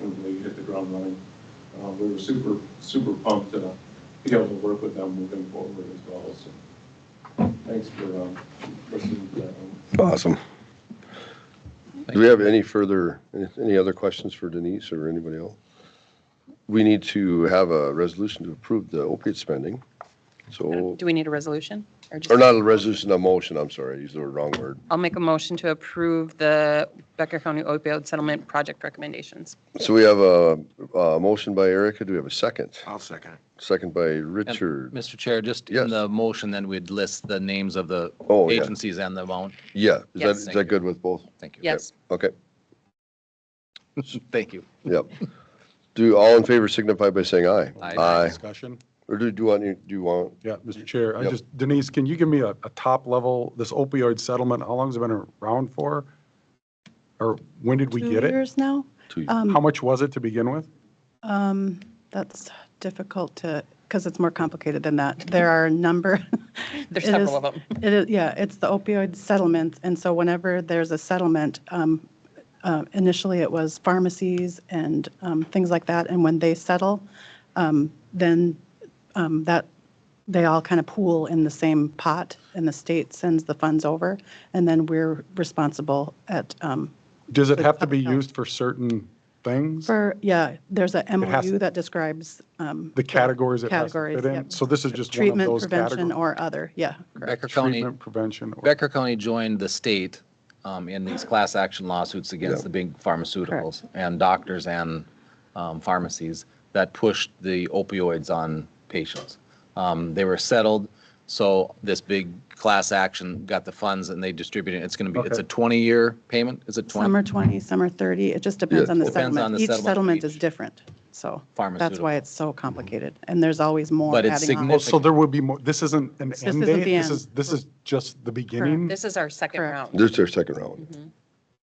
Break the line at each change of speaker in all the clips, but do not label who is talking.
to hit the ground running. Uh, We were super, super pumped uh, to be able to work with them moving forward as well, so thanks for um, listening to that. one.
Awesome. Do we have any further, any other questions for Denise or anybody else? We need to have a resolution to approve the opiate spending. So,
Do we need a resolution? just-
or not a resolution, a motion, I'm sorry, I used the wrong word.
I'll make a motion to approve the Becker County opioid settlement project recommendations.
So we have a, a motion by Erica. Do we have a second?
I'll second it.
Second by
And,
Richard.
Mr. Chair, just
Yes.
in the motion, then we'd list the names of the
Oh, yeah.
agencies and the amount.
Yeah, is that,
Yes.
is that good with both?
Thank you.
Yes.
Okay,
Thank you.
yep. Do all in favor signify by saying aye.
Aye.
Aye.
Discussion?
Or do, do you want, do you want,
Yeah, Mr. Chair, I
Yep.
just, Denise, can you give me a, a top level, this opioid settlement, how long's it been around for? Or when did we
two
get it?
years now.
Two.
Um,
How much was it to begin with?
um, That's difficult to, because it's more complicated than that. There are a number.
There's
It
several
is-
of them.
It is, yeah, it's the opioid settlements. And so whenever there's a settlement, um, uh, initially it was pharmacies and um, things like that. And when they settle, um, then um, that, they all kind of pool in the same pot and the state sends the funds over. And then we're responsible at um,
Does it have to be used for certain things?
For, yeah, there's a
has-
MOU that describes. um,
The categories it has to
Categories,
fit in?
yep.
So this is just one of
Treatment,
those
prevention,
categories?
or other, yeah.
Becker County,
Treatment, prevention. or-
Becker County joined the state um, in these class action lawsuits against the big pharmaceuticals and doctors and um, pharmacies that pushed the opioids on patients. Um, They were settled, so this big class action got the funds and they distributed, it. it's going to be, it's a 20-year payment? Is it 20?
Some are 20, some are 30, it just depends on the
Depends on
settlement.
the
Each
settlement
settlement is
each.
different, so. That's
Pharmaceutical.
why it's so complicated, and there's always more
But
adding
it's
on.
Oh, so there would be more, this isn't an
This
end
isn't
date?
the
This
end.
is, this is just the beginning?
This is our second
Correct.
round.
this is our second round.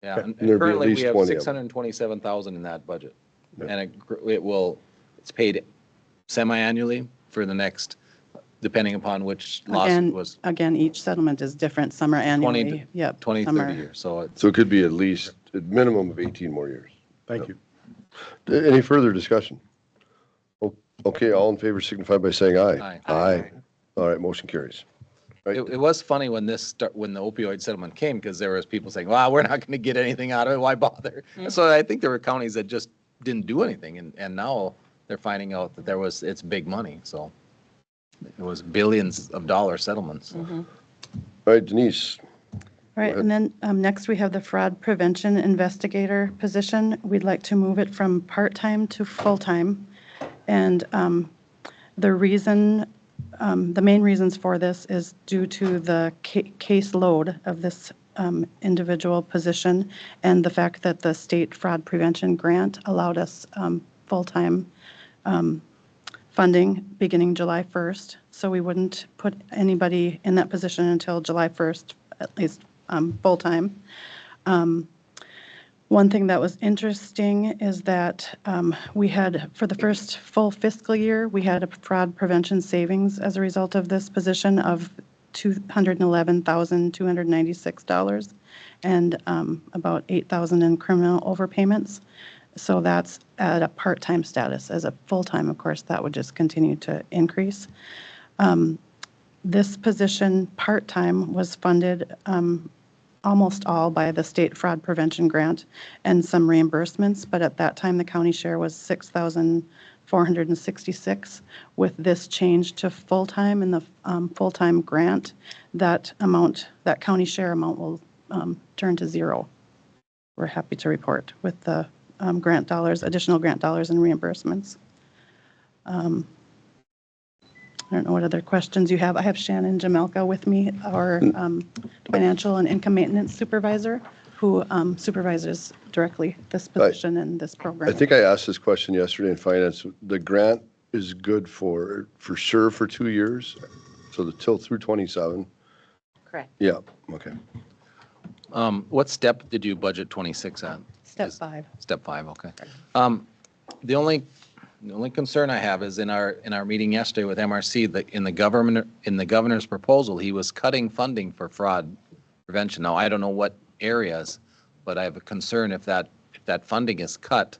Yeah,
There'd
and
be at
currently we
least
have
20 of them.
six hundred and twenty-seven thousand in that budget.
Yeah.
And it, gr- it will, it's paid semi-annually for the next, depending upon which lawsuit
Again,
was
again, each settlement is different, some are
20
annually, yep.
20,
some
30
are-
years. So it's,
So it could be at least, a minimum of 18 more years.
Thank you.
Any further discussion? O- Okay, all in favor signify by saying aye.
Aye.
Aye. All right, motion carries.
it, it was funny when this, start- when the opioid settlement came, because there was people saying, wow, we're not going to get anything out of it. Why bother? And So I think there were counties that just didn't do anything and, and now they're finding out that there was, it's big money. So it was billions of dollar settlements.
All right, Denise,
All right, and then um, next we have the fraud prevention investigator position. We'd like to move it from part-time to full-time. And um, the reason, um, the main reasons for this is due to the ca- caseload of this um, individual position and the fact that the state fraud prevention grant allowed us um, full-time funding beginning July 1st, so we wouldn't put anybody in that position until July 1st, at least um, full-time. Um, One thing that was interesting is that um, we had, for the first full fiscal year, we had a fraud prevention savings as a result of this position of $211,296 and um, about 8,000 in criminal overpayments. So that's at a part-time status. As a full-time, of course, that would just continue to increase. Um, This position, part-time, was funded um, almost all by the state fraud prevention grant and some reimbursements, but at that time, the county share was 6466 With this change to full-time and the um, full-time grant, that amount, that county share amount will um, turn to zero we're happy to report with the um, grant dollars, additional grant dollars and reimbursements. Um, I don't know what other questions you have. I have Shannon Jamelka with me, our
Mm.
um, financial and income maintenance supervisor, who um, supervises directly this position and this program.
I think I asked this question yesterday in finance. The grant is good for, for sure for two years, so the till through 27.
Correct.
Yeah, okay.
Um, What step did you budget 26 at?
Step
Is-
five.
Step five, okay. Um, The only, the only concern I have is in our, in our meeting yesterday with MRC, that in the government, in the governor's proposal, he was cutting funding for fraud prevention. Now, I don't know what areas, but I have a concern if that, if that funding is cut,